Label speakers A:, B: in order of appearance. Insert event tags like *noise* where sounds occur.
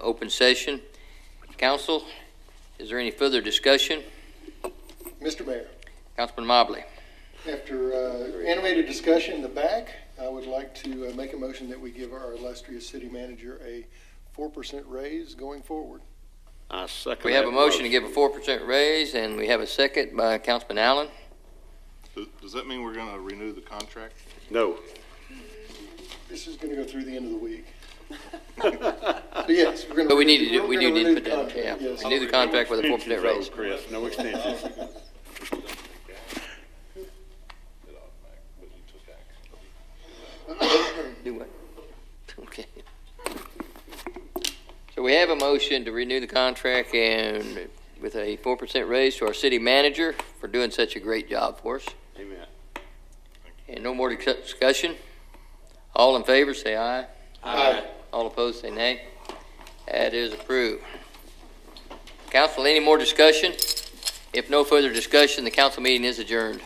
A: open session. Council, is there any further discussion?
B: Mr. Mayor,
A: Councilman Mobley,
B: after uh, animated discussion in the back, I would like to uh, make a motion that we give our illustrious city manager a 4% raise going forward.
C: I second
A: we have a
C: that
A: motion to give a four percent raise, and we have a second by Councilman Allen.
D: Does- Does that mean we're gonna renew the contract?
C: No.
B: This is going to go through the end of
A: *laughs*
B: the week. But yes, we're going to.
A: But we need to do, we do need to put that, yeah, we need the contract with a four percent raise.
C: Chris,
A: *laughs*
C: no extensions.
B: *laughs* *laughs*
A: Do what? *laughs* Okay. So we have a motion to renew the contract and with a four percent raise to our city manager for doing such a great job for us.
C: Amen.
A: And no more discuss- discussion? All in favor, say aye.
C: Aye.
A: All opposed, say nay. That is approved. Council, any more discussion? If no further discussion, the council meeting is adjourned.